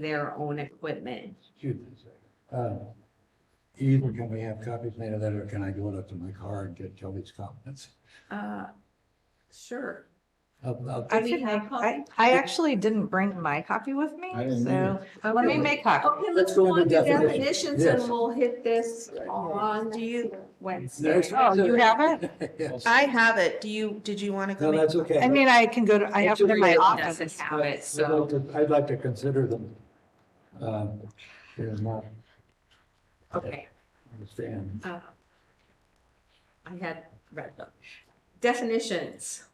their own equipment. Excuse me a second. Uh, Either can we have copies made of that, or can I go up to my car and get Kelly's comments? Uh, Sure. I'll- I'll- I I mean, can have make, I, coffee. I actually didn't bring my copy with me, I didn't so either. let me make Oh. copy. Okay, Let's let's go go into into definitions. definitions Yes. and we'll hit this on Do you, Wednesday? There's- Oh, you have it? Yes. I have it. Do you, did you want to No, go? make- that's okay. I mean, I can go to, I have it in my doesn't office. have it, I'd like so. to- I'd like to consider them. Um, They're not, Okay. understand. uh, I had read them. Definitions.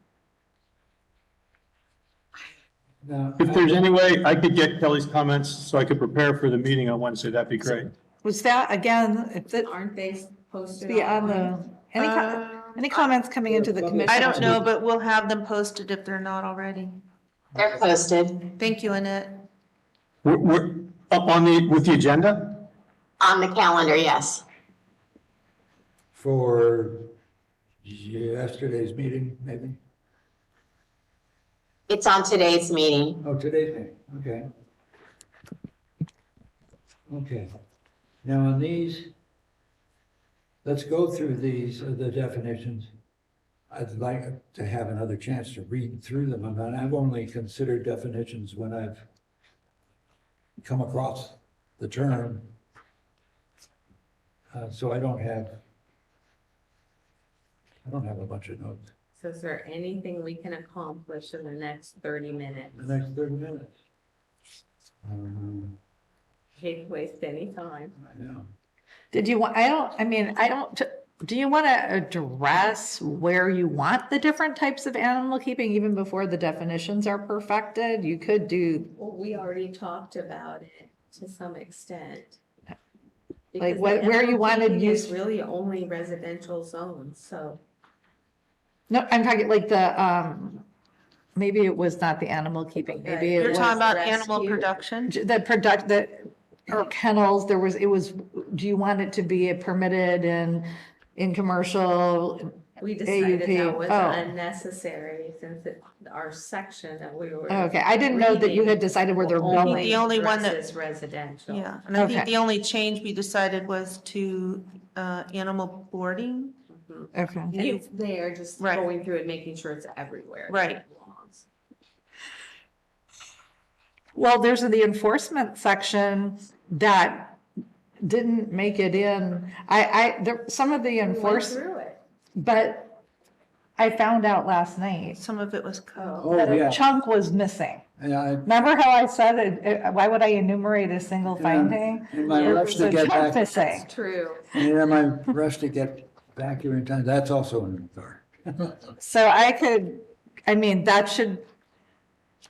Now, If there's any way I could get Kelly's comments so I could prepare for the meeting on Wednesday, that'd be great. Was that, again, it's, it's Aren't they posted be on online? the, any, co- Um, any comments coming into the commission? I don't know, but we'll have them posted if they're not already. They're posted Thank you, Annette. We're, we're up on the, with the agenda? on the calendar, yes. For yesterday's meeting, maybe? It's on today's meeting. Oh, today's meeting, okay. Okay. Now, on these, let's go through these, uh, the definitions. I'd like to have another chance to read through them, and I've only considered definitions when I've come across the term. Uh, So I don't have, I don't have a bunch of notes. So is there anything we can accomplish in the next thirty minutes? The next thirty minutes. Um, Can't waste any time. I know. Did you want, I don't, I mean, I don't, do you want to address where you want the different types of animal keeping even before the definitions are perfected? You could do, Well, we already talked about it to some extent. Like, Because what- the where you wanted MLD is use- Really only residential zones, so. no, I'm talking like the, um, maybe it was not the animal keeping, maybe it You're was. talking about rescue. animal production? the product, the, or kennels, there was, it was, do you want it to be a permitted and in commercial? We decided that AUP, was oh. unnecessary since it, our section that we were. Okay, I didn't know that you had decided where they're only going. The only one that- addresses residential. Yeah, and I think Okay. the only change we decided was to, uh, animal boarding. Mhm. Okay. You- They are just Right. going through and making sure it's everywhere. that Right. it belongs. Well, there's the enforcement section that didn't make it in. I, I, there, some of the We went enforce, Through it. but I found out last night Some of it was code. Oh, that a yeah. chunk was missing. And I, Remember how I said, it- it- why would I enumerate a single Yeah. finding? in my Yeah, rush to There's a get chunk back, missing. That's true. and in my rush to get back here in time, that's also in the car. So I could, I mean, that should,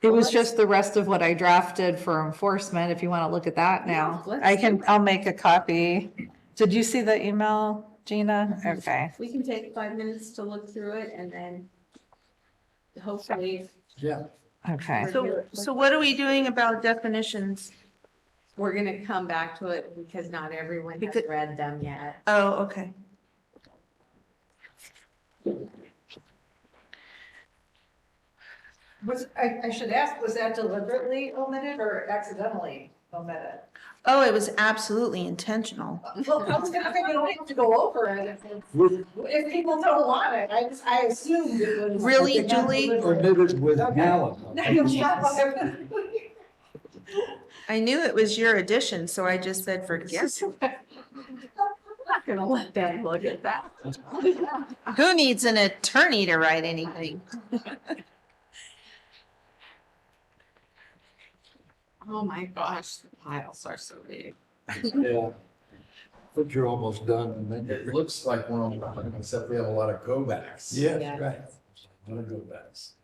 it was just the rest of what I drafted for enforcement, if you want to look at that now. Yeah, let's I do can, I'll make a copy. Did you see the email, Gina? Mm-hmm. Okay. We can take five minutes to look through it and then hopefully Yeah, Oh, Okay. So, so what are we doing about definitions? we're gonna come back to it because not everyone has Because- read them yet. Oh, okay. Was, I, I should ask, was that deliberately omitted or accidentally omitted? Oh, it was absolutely intentional. Well, I was gonna think we don't have to go over it if, with, if people don't want it. I just, I assumed it was. Really, Julie? or knitted with Okay. malice. No, you're not. I knew it was your addition, so I just said, forget. it." Not gonna let them look at that. Who needs an attorney to write anything? Oh my gosh, the piles are so big. Yeah. But you're almost done, and then It you're. looks like we're on, plan, except we have a lot of go backs. Yes, Yeah. right. A lot of go backs.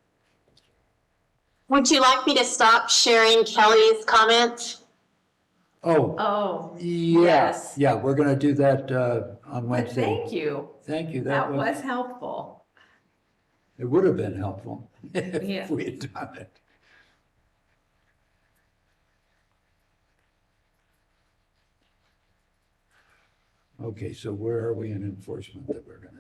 Would you like me to stop sharing Kelly's comments? Oh, Oh, yeah, yes. yeah, we're gonna do that, uh, on but Wednesday. thank you. Thank you, That was helpful. It would have been helpful Yeah. if we had done it. Okay, so where are we in enforcement that we're gonna,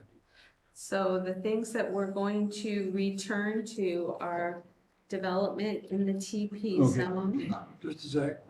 So the things that we're going to return to are development in the TP Okay. zone. just a sec,